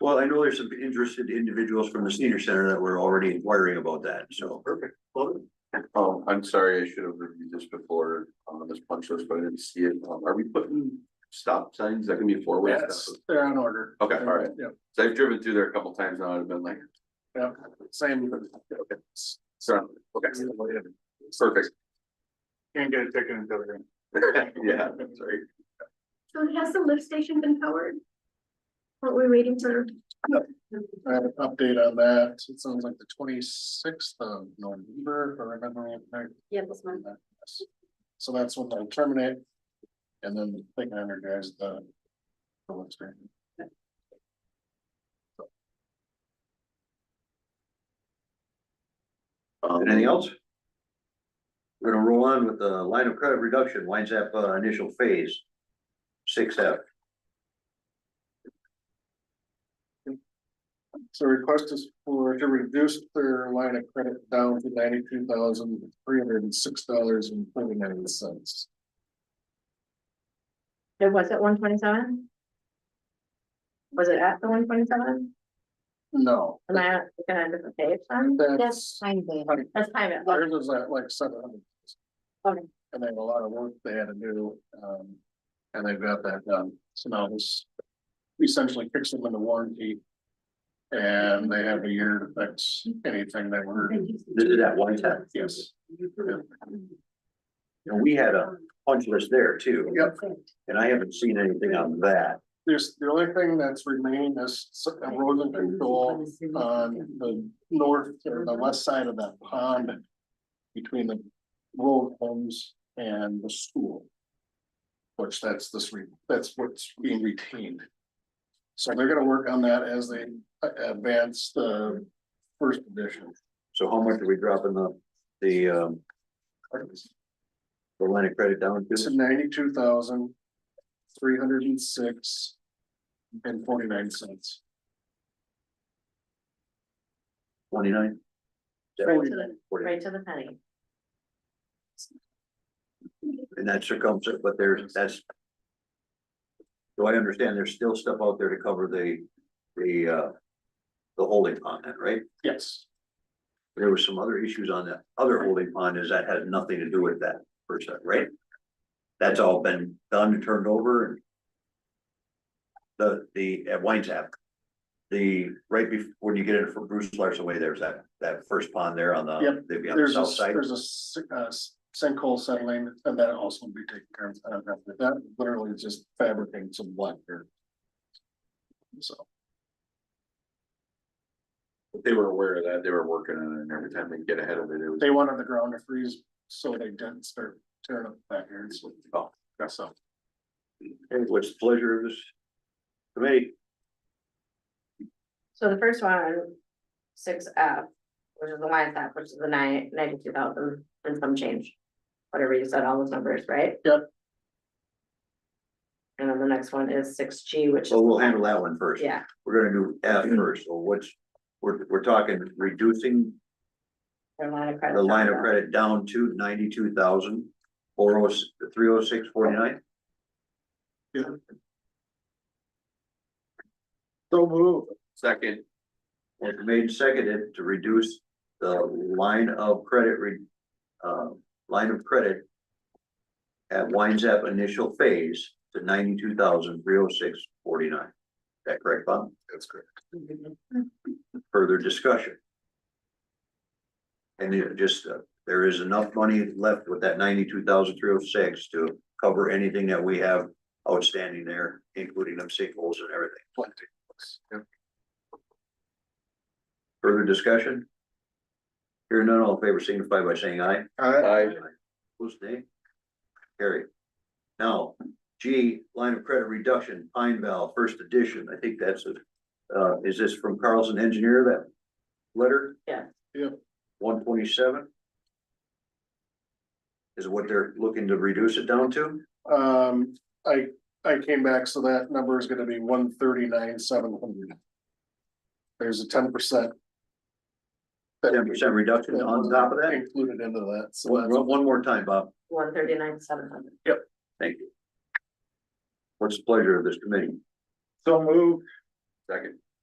Well, I know there's some interested individuals from the senior center that were already inquiring about that, so. Perfect. Um, I'm sorry, I should have reviewed this before on this punch list, but I didn't see it. Um, Are we putting stop signs that can be four ways? Yes, they're on order. Okay, all right. Yep, So I've driven through there a couple times now. and I've been like, yep, same. okay, so, okay, perfect. Can't get a ticket until then. Yeah, sorry. So has the lift station been powered? What we're waiting for, I have an update on that. It sounds like the twenty-sixth of November, if I remember it right. Yeah, this one. Yes. So that's when they terminate. And then they can energize the. the lift station. Um, Anything else? We're gonna roll on with the line of credit reduction, winds up uh, initial phase. Six F, So request is for to reduce their line of credit down to ninety-two thousand three hundred and six dollars and thirty-nine cents. It was at one twenty-seven? Was it at the one twenty-seven? No. Am I looking at a different page then? That's. time Right. That's time. it was. Ours was at like seven hundred. Okay. And they had a lot of work they had to do, um, and they've got that done, so now this essentially kicks them into warranty. And they have a year to fix anything they were, this is at one time. yes, And we had a punch list there too. Yep. And I haven't seen anything on that. there's, the only thing that's remaining is s- erosion control on uh, the north, or the west side of that pond. Between the road homes and the school. Which that's this, re- that's what's being retained. So they're gonna work on that as they a- advance the first edition. So how much are we dropping the, the, um, the line of credit down It's to? ninety-two thousand, three hundred and six. And forty-nine cents. Twenty-nine? Right to the- Forty, Right to the penny. and that circumference, but there's, that's. Do I understand there's still stuff out there to cover the, the, uh, the holding pond then, right? Yes. There were some other issues on that other holding pond is that has nothing to do with that per se, right? That's all been done and turned over and. The, the, at Wines App. The, right before, when you get in from Bruce Larson way, there's that, that first pond there on the, Yep, they'd be on the There's a, south side. there's a si- uh, s- sinkhole settling and that also will be taken care of. I don't have to- That literally is just fabricating some black dirt. So, They were aware of that. They were working on it and every time they get ahead of it, it was. they wanted the ground to freeze, so they didn't start tearing up backyards. Oh. That's all. Hey, What's the pleasure of this? Committee, So the first one, six F, which is the line app, which is the nine, ninety-two thousand and some change. Whatever you said, all those numbers, right? Yep. And then the next one is six G, which so is, we'll handle that one first. yeah, We're gonna do F first, so what's, we're, we're talking reducing their line of credit. the line of credit down to ninety-two thousand, four oh, three oh six forty-nine. So move. Second, It's made and seconded to reduce the line of credit re, uh, line of credit at winds up initial phase to ninety-two thousand, three oh six forty-nine. Is that correct, Bob? That's correct. Further discussion? And it just, uh, there is enough money left with that ninety-two thousand, three oh six to cover anything that we have outstanding there, including them sinkholes and everything. Plenty. Yep. Further discussion? Hearing none, all in favor signify by saying aye. I, Who's nay? Carry. Now, G, line of credit reduction, Pine Val, first edition, I think that's a, uh, is this from Carlson Engineer, that letter? Yeah. Yeah. One twenty-seven? Is what they're looking to reduce it down to? Um, I, I came back, so that number is gonna be one thirty-nine, seven hundred. There's a ten percent. Ten percent reduction on top of that? Included into that, so that's. One, one more time, Bob, One thirty-nine, seven hundred. thank you. What's the pleasure of this committee? So move. second,